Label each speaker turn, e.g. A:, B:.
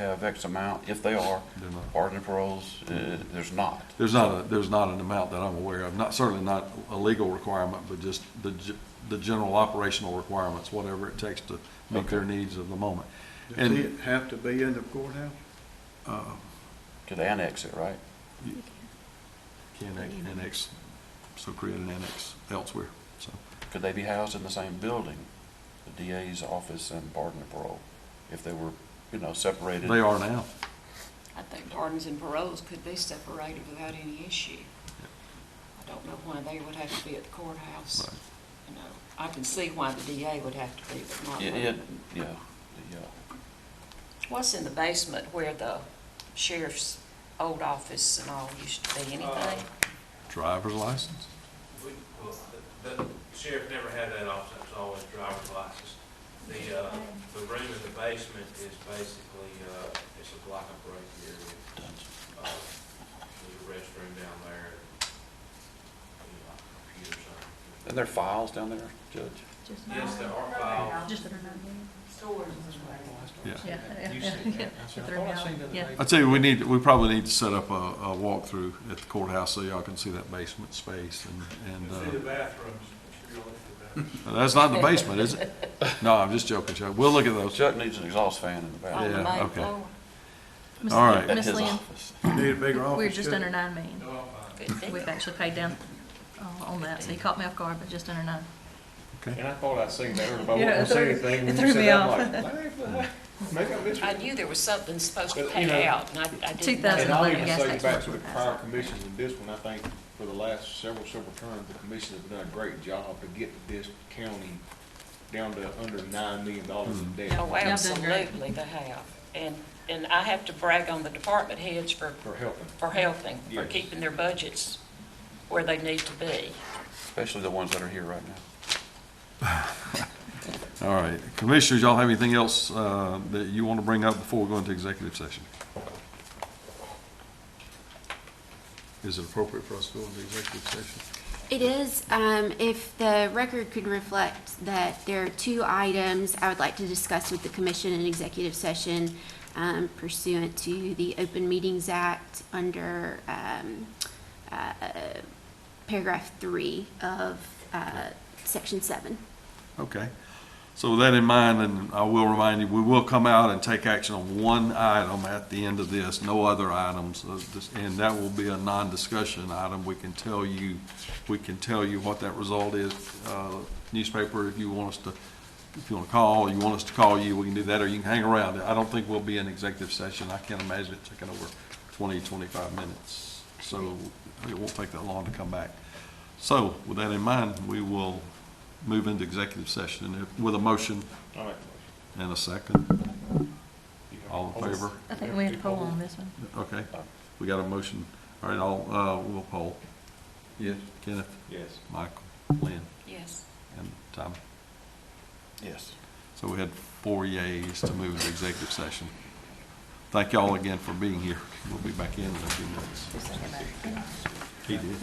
A: have X amount, if they are,
B: They're not.
A: pardon and paroles, uh, there's not.
B: There's not, a there's not an amount that I'm aware of, not, certainly not a legal requirement, but just the, ge- the general operational requirements, whatever it takes to meet their needs of the moment.
C: Does
B: And,
C: it have to be in the courthouse?
B: uh,
A: Could annex it, right?
B: can an- annex, so create an annex elsewhere, so.
A: Could they be housed in the same building, the DA's office and pardon and parole, if they were, you know, separated?
B: They are now.
D: I think pardons and paroles could be separated without any issue. I don't know why they would have to be at the courthouse.
B: Right.
D: You know, I can see why the DA would have to be, but not.
A: Yeah,
D: her.
A: it- yeah, the, uh,
D: What's in the basement where the sheriff's old office and all used to
E: Uh,
D: be, anything?
B: Driver's license?
F: We, well, the the sheriff never had that office, it was always driver's license. The, uh, the room in the basement is basically, uh, it's a block of break area. Uh, There's a restroom down there, you know, computers
A: And
F: on.
A: there are files down there, Judge?
F: Yes, there are files.
G: Just,
B: Yeah.
G: yeah.
F: You said that.
G: Get the room out. Yeah.
B: I tell you, we need, we probably need to set up a, a walkthrough at the courthouse so y'all can see that basement space and, and, uh,
C: bathrooms.
B: that's not the basement, is it? No, I'm just joking, Chuck. We'll look at those.
A: Chuck needs an exhaust fan in the back.
D: On the
B: Yeah,
D: main
B: okay.
D: floor?
G: Miss-
B: All right.
A: At
G: Oh, Miss
A: his
G: Lynn,
A: office.
C: Need a bigger office.
E: Oh,
G: we're just
C: too.
G: under nine million.
D: Good deal.
G: We've actually paid down uh, on that, so you caught me off guard, but just under nine.
E: And I thought I seen that, but I
G: Yeah, it
E: wasn't
G: threw-
E: saying anything.
G: it
E: When
G: threw
E: you said
G: me
E: that,
G: off.
E: I'm like, maybe I missed
D: I
E: it.
D: knew there was something supposed to
E: But, you
D: pay
E: know,
D: out, and I, I didn't.
G: Two thousand
E: And I'll
G: eleven
E: even
G: gas
E: say
G: tax
E: back
G: was
E: to the
G: what I
E: prior
G: said.
E: commissions and this one, I think for the last several, several terms, the commission has done a great job to get this county down to under nine million dollars
C: Hmm.
E: in debt.
D: Oh,
G: Y'all done great.
D: absolutely, they have. And, and I have to brag on the department heads for
E: For helping.
D: for helping, for
E: Yes.
D: keeping their budgets where they need to be.
A: Especially the ones that are here right now.
B: All right. Commissioners, y'all have anything else uh, that you want to bring up before we go into executive session? Is it appropriate for us to go into executive session?
H: It is, um, if the record could reflect that there are two items I would like to discuss with the commission in executive session um, pursuant to the Open Meetings Act under, um, uh, paragraph three of, uh, section seven.
B: Okay. So with that in mind, and I will remind you, we will come out and take action on one item at the end of this, no other items. uh, this- And that will be a non-discussion item. We can tell you, we can tell you what that result is. Uh, Newspaper, if you want us to, if you want to call, you want us to call you, we can do that, or you can hang around. I don't think we'll be in executive session. I can't imagine it taking over 20, 25 minutes. So it won't take that long to come back. So with that in mind, we will move into executive session and if- with a motion
E: All right.
B: and a second. All in favor?
G: I think we had to poll on this one.
B: Okay, we got a motion. All right, I'll, uh, we'll poll. Yes. Kenneth,
E: Yes.
B: Michael, Lynn,
D: Yes.
B: and Tom.
A: Yes.
B: So we had four yays to move into executive session. Thank y'all again for being here. We'll be back in in a few minutes. He did.